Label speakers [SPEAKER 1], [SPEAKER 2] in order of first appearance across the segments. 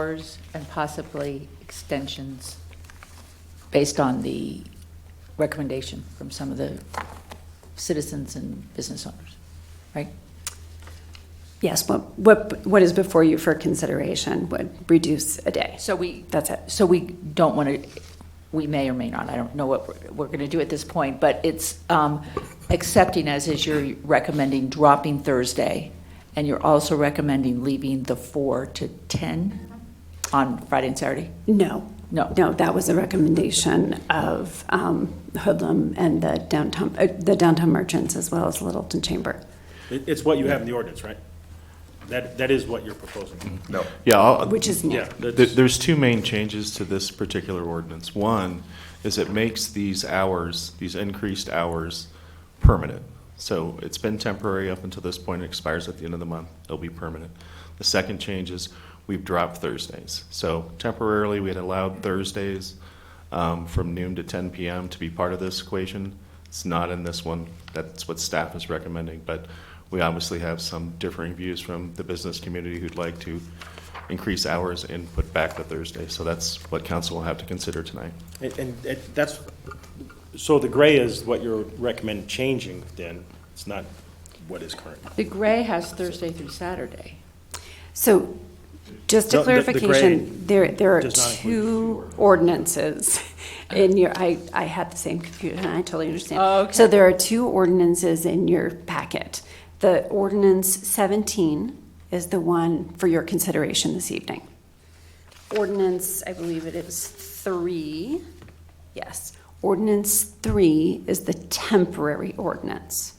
[SPEAKER 1] hours and possibly extensions based on the recommendation from some of the citizens and business owners, right?
[SPEAKER 2] Yes, what, what, what is before you for consideration would reduce a day.
[SPEAKER 1] So we,
[SPEAKER 2] That's it.
[SPEAKER 1] so we don't want to, we may or may not, I don't know what we're- we're going to do at this point, but it's um, accepting as is you're recommending dropping Thursday, and you're also recommending leaving the 4 to 10 on Friday and Saturday?
[SPEAKER 2] No.
[SPEAKER 1] No.
[SPEAKER 2] No, that was a recommendation of um, Hoodlum and the downtown, uh, the downtown merchants as well as Littleton Chamber.
[SPEAKER 3] It, it's what you have in the ordinance, right? That, that is what you're proposing.
[SPEAKER 4] No.
[SPEAKER 5] Yeah, I'll-
[SPEAKER 2] Which is new.
[SPEAKER 3] Yeah. that's-
[SPEAKER 5] there- there's two main changes to this particular ordinance. One is it makes these hours, these increased hours, permanent. So it's been temporary up until this point, it expires at the end of the month, it'll be permanent. The second change is we've dropped Thursdays. So temporarily, we had allowed Thursdays um, from noon to 10 PM to be part of this equation. It's not in this one, that's what staff is recommending, but we obviously have some differing views from the business community who'd like to increase hours and put back the Thursday. So that's what council will have to consider tonight.
[SPEAKER 3] And, and it- that's, so the gray is what you're recommending changing then, it's not what is current.
[SPEAKER 1] The gray has Thursday through Saturday.
[SPEAKER 2] So just
[SPEAKER 3] No,
[SPEAKER 2] a
[SPEAKER 3] the- the
[SPEAKER 2] clarification,
[SPEAKER 3] grade
[SPEAKER 2] there, there are
[SPEAKER 3] does not
[SPEAKER 2] two
[SPEAKER 3] include
[SPEAKER 2] ordinances in your, I, I had the same confusion, I totally understand.
[SPEAKER 1] Oh, okay.
[SPEAKER 2] So there are two ordinances in your packet. The ordinance 17 is the one for your consideration this evening. Ordinance, I believe it is three, yes. Ordinance three is the temporary ordinance.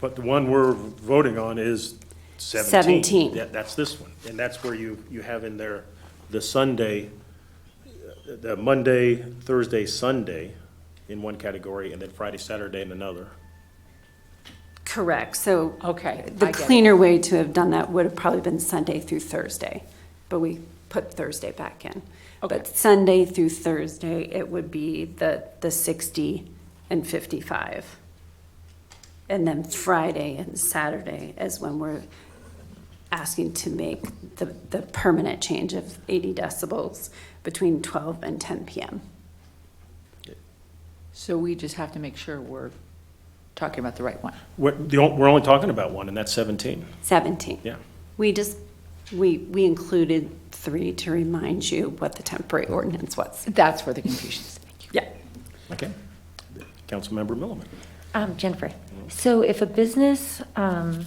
[SPEAKER 3] But the one we're voting on is seventeen.
[SPEAKER 2] 17.
[SPEAKER 3] That, that's this one, and that's where you, you have in there the Sunday, uh, the Monday, Thursday, Sunday in one category, and then Friday, Saturday in another.
[SPEAKER 2] Correct, so.
[SPEAKER 1] Okay, I
[SPEAKER 2] The
[SPEAKER 1] get it.
[SPEAKER 2] cleaner way to have done that would have probably been Sunday through Thursday, but we put Thursday back in.
[SPEAKER 1] Okay.
[SPEAKER 2] But Sunday through Thursday, it would be the, the sixty and fifty-five. And then Friday and Saturday is when we're asking to make the, the permanent change of eighty decibels between twelve and ten PM.
[SPEAKER 1] So we just have to make sure we're talking about the right one.
[SPEAKER 3] We're, the on- we're only talking about one, and that's seventeen,
[SPEAKER 2] Seventeen.
[SPEAKER 3] yeah.
[SPEAKER 2] We just, we, we included three to remind you what the temporary ordinance was.
[SPEAKER 1] That's where the confusion is.
[SPEAKER 2] Yeah.
[SPEAKER 3] Okay. Councilmember Milliman.
[SPEAKER 6] Um, Jennifer, so if a business, um,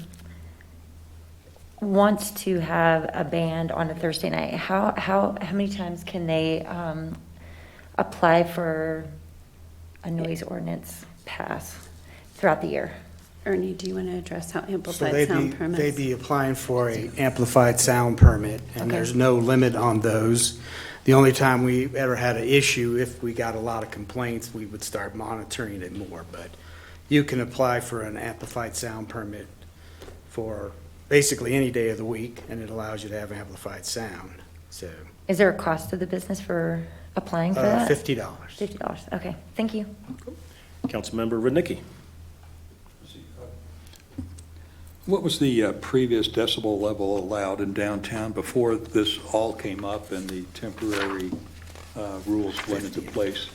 [SPEAKER 6] wants to have a band on a Thursday night, how, how, how many times can they, um, apply for a noise ordinance pass throughout the year?
[SPEAKER 2] Ernie, do you want to address how
[SPEAKER 7] So
[SPEAKER 2] amplified
[SPEAKER 7] they'd be,
[SPEAKER 2] sound
[SPEAKER 7] they'd
[SPEAKER 2] permits?
[SPEAKER 7] be applying for a amplified sound permit, and
[SPEAKER 2] Okay.
[SPEAKER 7] there's no limit on those. The only time we ever had an issue, if we got a lot of complaints, we would start monitoring it more, but you can apply for an amplified sound permit for basically any day of the week, and it allows you to have amplified sound, so,
[SPEAKER 6] Is there a cost to the business for applying for
[SPEAKER 7] uh,
[SPEAKER 6] that?
[SPEAKER 7] fifty dollars.
[SPEAKER 6] Fifty dollars, okay, thank you.
[SPEAKER 3] Councilmember Rodnicki.
[SPEAKER 8] What was the uh, previous decibel level allowed in downtown before this all came up and the temporary uh, rules went into place?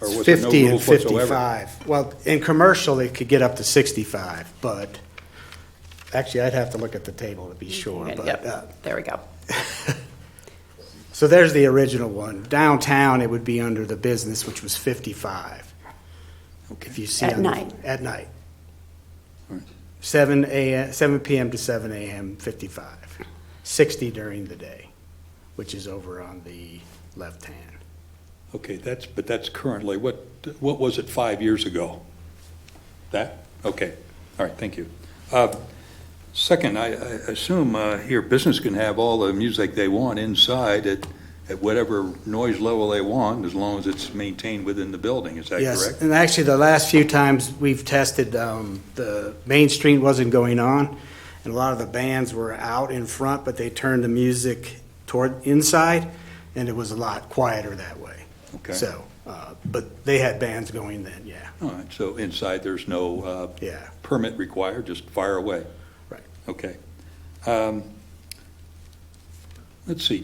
[SPEAKER 8] Or was there no
[SPEAKER 7] Fifty and
[SPEAKER 8] rules whatsoever?
[SPEAKER 7] fifty-five. Well, in commercial, it could get up to sixty-five, but, actually, I'd have to look at the table to be sure, but, uh,
[SPEAKER 2] Yep, there we go.
[SPEAKER 7] So there's the original one. Downtown, it would be under the business, which was 55. If you see.
[SPEAKER 2] At
[SPEAKER 7] on the-
[SPEAKER 2] night.
[SPEAKER 7] At night.
[SPEAKER 8] Alright.
[SPEAKER 7] Seven AM, seven PM to seven AM, 55. 60 during the day, which is over on the left hand.
[SPEAKER 8] Okay, that's, but that's currently, what, what was it five years ago? That, okay, all right, thank you. Uh, Second, I, I assume uh, here business can have all the music they want inside at, at whatever noise level they want, as long as it's maintained within the building, is that correct?
[SPEAKER 7] Yes, and actually, the last few times we've tested, um, the Main Street wasn't going on, and a lot of the bands were out in front, but they turned the music toward inside, and it was a lot quieter that way.
[SPEAKER 8] Okay.
[SPEAKER 7] So, uh, but they had bands going then, yeah,
[SPEAKER 8] All right, so inside, there's no uh,
[SPEAKER 7] yeah.
[SPEAKER 8] permit required, just fire away?
[SPEAKER 7] Right.
[SPEAKER 8] Okay. Um, Let's see,